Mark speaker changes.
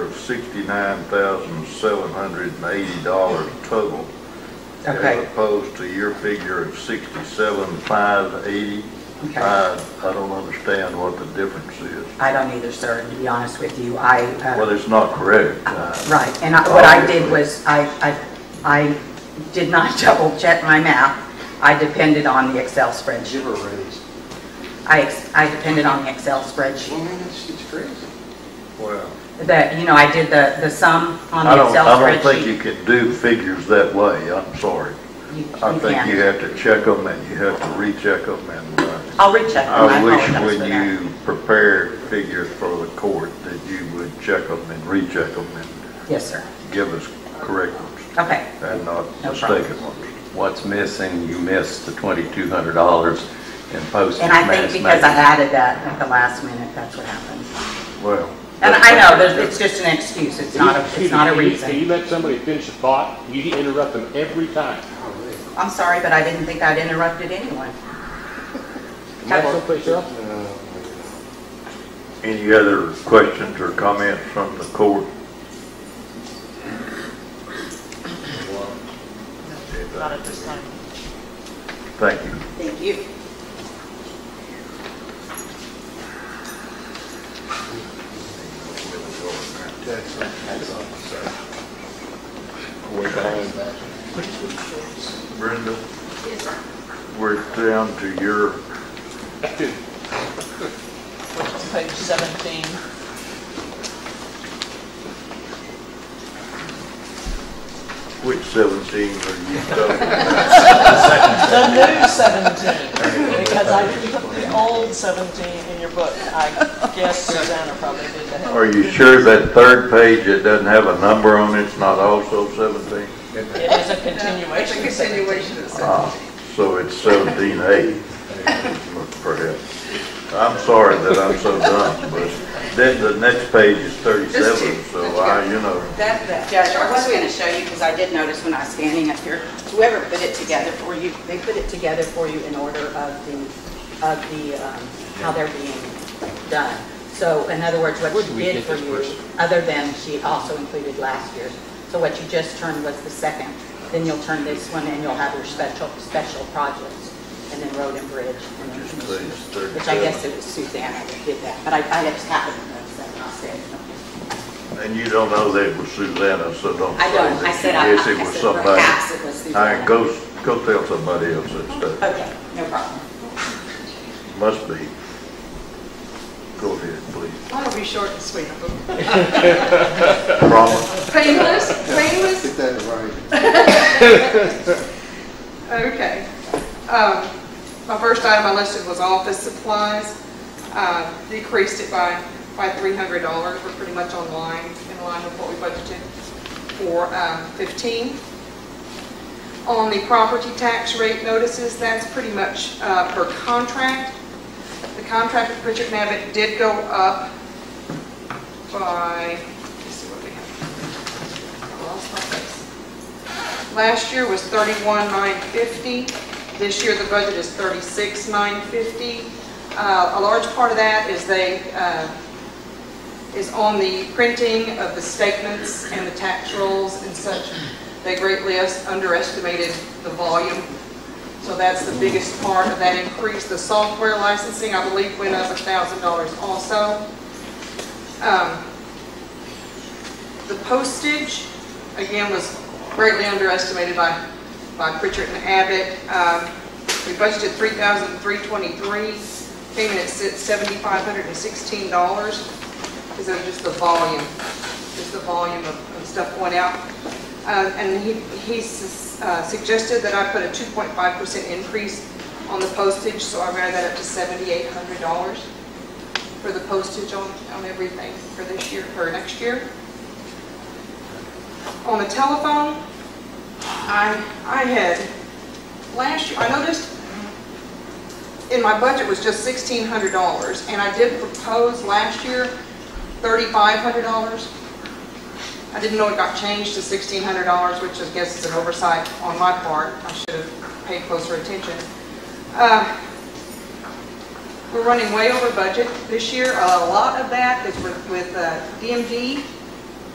Speaker 1: sixty-nine thousand seven hundred and eighty dollars total. As
Speaker 2: Okay,
Speaker 1: opposed to your figure of sixty-seven five eighty.
Speaker 2: Okay.
Speaker 1: I, I don't understand what the difference is.
Speaker 2: I don't either, sir, to be honest with you. I, uh,
Speaker 1: Well, it's not correct. uh,
Speaker 2: right, and I- what I did was, I, I, I did not double check my math. I depended on the Excel spreadsheet.
Speaker 3: Give her a raise.
Speaker 2: I, ex- I depended on the Excel spreadsheet.
Speaker 3: Well, man, that's, it's crazy.
Speaker 1: Well,
Speaker 2: That, you know, I did the, the sum on
Speaker 1: I
Speaker 2: the
Speaker 1: don't,
Speaker 2: Excel
Speaker 1: I don't think
Speaker 2: spreadsheet.
Speaker 1: you can do figures that way, I'm sorry.
Speaker 2: You-
Speaker 1: I
Speaker 2: you
Speaker 1: think
Speaker 2: can't.
Speaker 1: you have to check them and you have to recheck them and, uh,
Speaker 2: I'll recheck them, Oh, I
Speaker 1: I wish
Speaker 2: apologize for
Speaker 1: when
Speaker 2: that.
Speaker 1: you prepare figures for the court that you would check them and recheck them and
Speaker 2: Yes, sir.
Speaker 1: give us correct ones
Speaker 2: Okay,
Speaker 1: and not
Speaker 2: No problem.
Speaker 1: mistaken ones.
Speaker 4: What's missing, you missed the twenty-two hundred dollars in postage.
Speaker 2: and I think
Speaker 4: mass
Speaker 2: because I
Speaker 4: mailing.
Speaker 2: added that at the last minute, that's what happened.
Speaker 1: Well.
Speaker 2: And I know, there's- it's just an excuse, it's not, a it's not a
Speaker 5: Excuse me, You
Speaker 2: reason.
Speaker 5: you let somebody finish a thought, you interrupt them every time.
Speaker 2: I'm sorry, but I didn't think I'd interrupted anyone.
Speaker 5: Am I someplace else?
Speaker 1: Any other questions or comments from the court?
Speaker 6: Not at this time.
Speaker 1: Thank you.
Speaker 6: Thank you.
Speaker 1: Brenda? We're down to your,
Speaker 6: Which is page 17.
Speaker 1: which 17 are you talking about?
Speaker 6: The new 17, because I didn't put the old 17 in your book. I guess Susanna probably did that.
Speaker 1: Are you sure that third page, it doesn't have a number on it, it's not also 17?
Speaker 6: It is a continuation of 17.
Speaker 1: Ah, so it's 17A, perhaps. I'm sorry that I'm so dumb, but then the next page is 37, so I, you know,
Speaker 7: That, that.
Speaker 2: Judge, I was going to show you, because I did notice when I was standing up here, whoever put it together for you, they put it together for you in order of the, of the, um, how they're being done. So in other words, what she did for you, other than she also included last year's. So what you just turned was the second, then you'll turn this one and you'll have your special, special projects, and then road and bridge. and then
Speaker 1: Just
Speaker 2: commission,
Speaker 1: page 37.
Speaker 2: Which I guess it was Susanna that did that, but I, I just happened to notice that, and I said, okay.
Speaker 1: and you don't know that it was Susanna, so don't
Speaker 2: I
Speaker 1: say
Speaker 2: don't,
Speaker 1: that
Speaker 2: I
Speaker 1: you
Speaker 2: said, I I
Speaker 1: guess it was
Speaker 2: said
Speaker 1: somebody.
Speaker 2: perhaps it was
Speaker 1: All
Speaker 2: Susanna.
Speaker 1: right, go, go tell somebody else that stuff,
Speaker 2: Okay, no problem.
Speaker 1: must be. Go ahead, please.
Speaker 7: I'll be short and sweet.
Speaker 1: Promise,
Speaker 7: Painless, painless,
Speaker 3: Get that right.
Speaker 7: okay. Um, My first item I listed was office supplies. Uh, Decreased it by, by $300. We're pretty much on line, in line with what we budgeted for um, 15. On the property tax rate notices, that's pretty much uh, per contract. The contract with Richard Navitt did go up by, let's see what we have. I lost my place. Last year was 31,950. This year, the budget is 36,950. Uh, A large part of that is they, uh, is on the printing of the statements and the tax rolls and such. They greatly us- underestimated the volume. So that's the biggest part of that increase. The software licensing, I believe, went up $1,000 also. Um, the postage, again, was greatly underestimated by, by Pritchard and Abbott. Um, We budgeted $3,323, came in at $7,516, because of just the volume, just the volume of of stuff going out. Uh, And he, he sus- uh, suggested that I put a 2.5% increase on the postage, so I ran that up to $7,800 for the postage on, on everything for this year, for next year. On the telephone, I, I had, last year, I noticed in my budget was just sixteen hundred dollars, and I did propose last year thirty-five hundred dollars. I didn't know it got changed to sixteen hundred dollars, which I guess is an oversight on my part. I should have paid closer attention. Uh, We're running way over budget this year. A lot of that is with with, uh, DMD